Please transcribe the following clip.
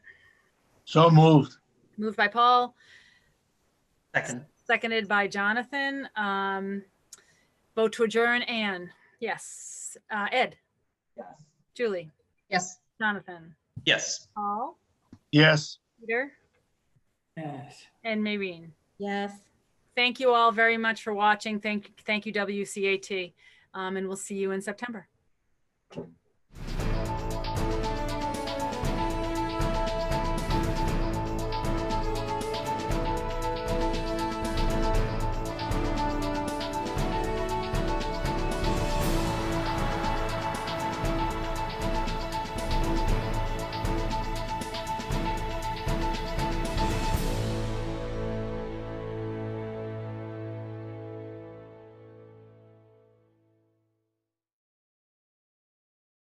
So moved. Moved by Paul, Second, seconded by Jonathan. Um, vote to adjourn, Anne. Yes. Uh, Ed, Yes. Julie, Yes. Jonathan, yes. Paul, Yes. Peter, Yes. and Maureen. Yes. Thank you all very much for watching. Thank, thank you, WCAT. Um, and we'll see you in September.